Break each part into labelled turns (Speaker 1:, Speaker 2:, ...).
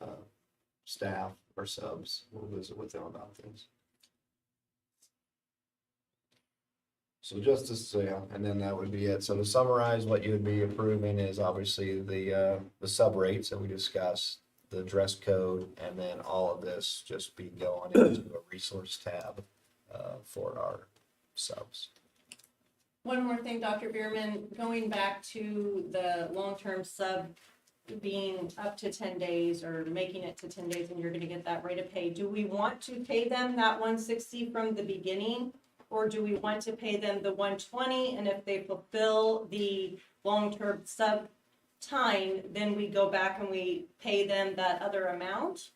Speaker 1: uh, staff or subs, we'll visit with them about things. So just to say, and then that would be it. So to summarize, what you would be approving is obviously the, uh, the sub rates that we discussed, the dress code, and then all of this just be going into a resource tab, uh, for our subs.
Speaker 2: One more thing, Dr. Bierman, going back to the long-term sub being up to ten days or making it to ten days and you're gonna get that rate of pay. Do we want to pay them that one sixty from the beginning? Or do we want to pay them the one twenty and if they fulfill the long-term sub time, then we go back and we pay them that other amount?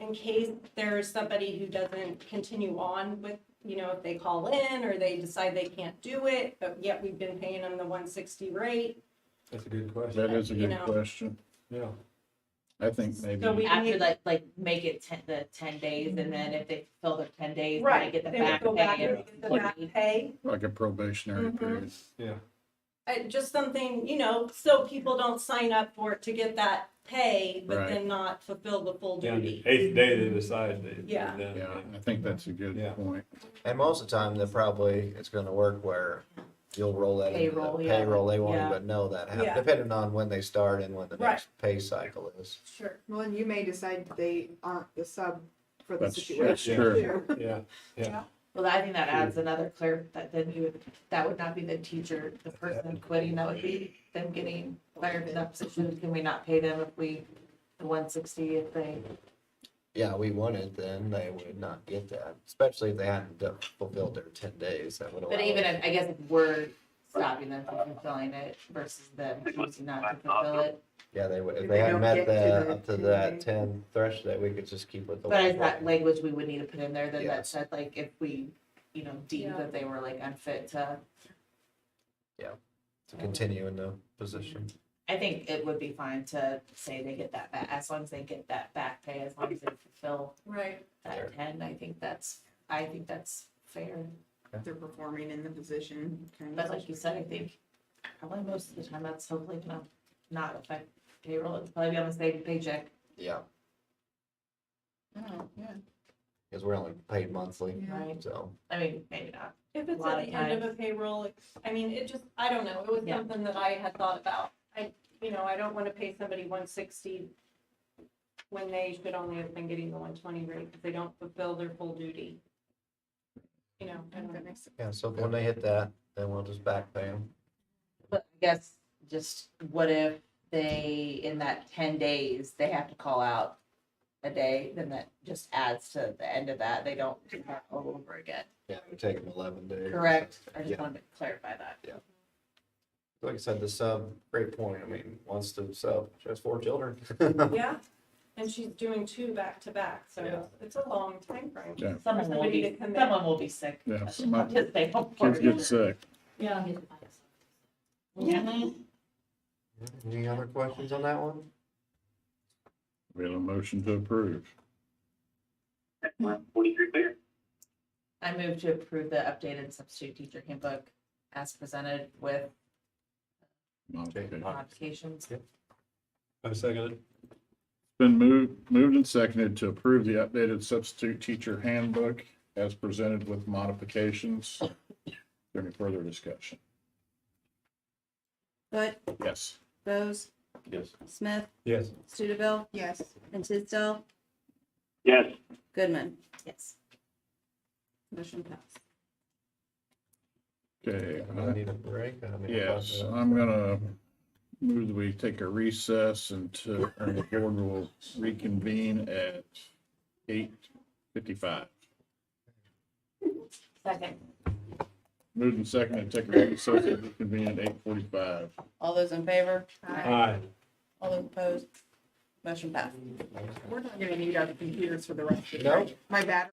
Speaker 2: In case there's somebody who doesn't continue on with you know, if they call in or they decide they can't do it, but yet we've been paying them the one sixty rate.
Speaker 3: That's a good question.
Speaker 4: That is a
Speaker 2: You
Speaker 4: good
Speaker 2: know.
Speaker 4: question.
Speaker 3: Yeah.
Speaker 4: I think
Speaker 2: So we-
Speaker 4: maybe,
Speaker 5: After like, like make it ten, the ten days and then if they fill their ten days, then they get the
Speaker 2: Then we
Speaker 5: back
Speaker 2: go back
Speaker 5: pay.
Speaker 2: and
Speaker 5: and
Speaker 2: we get the
Speaker 4: Like-
Speaker 2: back pay.
Speaker 4: like a probationary
Speaker 2: Mhm.
Speaker 4: period.
Speaker 2: Uh, just something, you know, so people don't sign up for it to get that pay, but
Speaker 4: Right.
Speaker 2: then not fulfill the full
Speaker 3: Down to
Speaker 2: duty.
Speaker 3: eighth day they decide they. they're
Speaker 2: Yeah.
Speaker 3: done.
Speaker 4: Yeah, I think that's a good
Speaker 3: Yeah.
Speaker 4: point.
Speaker 1: And most of the time, they're probably, it's gonna work where you'll roll that into the
Speaker 5: Payroll, yeah.
Speaker 1: payroll, they won't
Speaker 5: Yeah.
Speaker 1: even know that
Speaker 2: Yeah.
Speaker 1: happened, depending on when they start and when the
Speaker 2: Right.
Speaker 1: next pay cycle is.
Speaker 2: Sure.
Speaker 6: Well, and you may decide that they aren't the sub for the
Speaker 4: That's,
Speaker 6: situation.
Speaker 4: that's true.
Speaker 6: too.
Speaker 3: Yeah,
Speaker 5: Well, I think that adds another clear, that then you would, that would not be the teacher, the person quitting, that would be them getting fired in that position. Can we not pay them if we, the one sixty if they?
Speaker 1: Yeah, we won it, then they would not get that, especially if they hadn't done- fulfilled their ten days, that would allow.
Speaker 5: But even if, I guess if we're stopping them from fulfilling it versus them choosing not to fulfill it.
Speaker 1: Yeah, they would, if
Speaker 6: If
Speaker 1: they
Speaker 6: they
Speaker 1: hadn't
Speaker 6: don't
Speaker 1: met
Speaker 6: get to
Speaker 1: that,
Speaker 6: the
Speaker 1: up to
Speaker 6: 10
Speaker 1: that
Speaker 6: days.
Speaker 1: ten threshold, we could just keep with the.
Speaker 5: But
Speaker 1: one
Speaker 5: is that
Speaker 1: rate.
Speaker 5: language we would need to put in there then
Speaker 1: Yeah.
Speaker 5: that said like if we, you know, deem
Speaker 2: Yeah.
Speaker 5: that they were like unfit to,
Speaker 1: To continue in the position.
Speaker 5: I think it would be fine to say they get that back, as long as they get that back pay, as long as they fulfill
Speaker 2: Right.
Speaker 1: Fair.
Speaker 5: that ten, I think that's, I think that's fair.
Speaker 6: They're performing in the position. kind of.
Speaker 5: But like you said, I think probably most of the time that's hopefully gonna not affect payroll, it's probably on the same paycheck.
Speaker 1: Yeah,
Speaker 6: Oh, yeah.
Speaker 1: because we're only paid monthly,
Speaker 6: Yeah.
Speaker 5: Right.
Speaker 1: so.
Speaker 5: I mean, maybe not.
Speaker 2: If it's
Speaker 5: Lot
Speaker 2: at
Speaker 5: of
Speaker 2: the end of a payroll, it's- I mean, it just, I don't know, it was
Speaker 5: Yeah.
Speaker 2: something that I had thought about. I, you know, I don't wanna pay somebody one sixty when they should only have been getting the one twenty rate, because they don't fulfill their full duty. You know, I don't
Speaker 6: I think
Speaker 2: know.
Speaker 6: that makes sense.
Speaker 1: Yeah, so when they hit that, then we'll just back pay them.
Speaker 5: But I guess just what if they, in that ten days, they have to call out a day, then that just adds to the end of that. They don't do that all over again.
Speaker 1: Yeah, we take them eleven days.
Speaker 5: Correct? I
Speaker 1: Yeah.
Speaker 5: just wanted to clarify that.
Speaker 1: Like I said, the sub, great point. I mean, once the sub, she has four children.
Speaker 2: Yeah, and she's doing two back to back,
Speaker 1: Yeah.
Speaker 2: so it's a long time frame.
Speaker 4: Yeah.
Speaker 5: Someone will
Speaker 2: Somebody
Speaker 5: be,
Speaker 2: to commit.
Speaker 5: someone will be sick.
Speaker 4: Yeah,
Speaker 5: Just
Speaker 4: some of-
Speaker 5: they don't
Speaker 4: Kids
Speaker 5: worry.
Speaker 4: get sick.
Speaker 2: Yeah.
Speaker 5: Yeah.
Speaker 1: Any other questions on that one?
Speaker 4: We have a motion to approve.
Speaker 7: Forty-three clear.
Speaker 5: I move to approve the updated substitute teacher handbook as presented with
Speaker 4: Modification.
Speaker 5: modifications.
Speaker 3: I second it.
Speaker 4: Been moved, moved and seconded to approve the updated substitute teacher handbook as presented with modifications. Is there Any further discussion?
Speaker 8: Foot,
Speaker 4: Yes.
Speaker 8: Bose,
Speaker 4: Yes.
Speaker 8: Smith,
Speaker 3: Yes.
Speaker 8: Studeville,
Speaker 6: Yes,
Speaker 8: and Tisdale,
Speaker 7: Yes,
Speaker 8: Goodman.
Speaker 5: Yes.
Speaker 8: Motion passed.
Speaker 4: Okay.
Speaker 1: I need a break. I mean,
Speaker 4: Yes,
Speaker 1: uh,
Speaker 4: I'm gonna move that we take a recess until, and the board will reconvene at eight fifty-five.
Speaker 5: Second.
Speaker 4: Moved and seconded, take a recess and reconvene at eight forty-five.
Speaker 8: All those in favor?
Speaker 3: Aye.
Speaker 8: All those opposed? Motion passed.
Speaker 6: we're not gonna need our computers for the rest of the
Speaker 1: No.
Speaker 6: night. My battery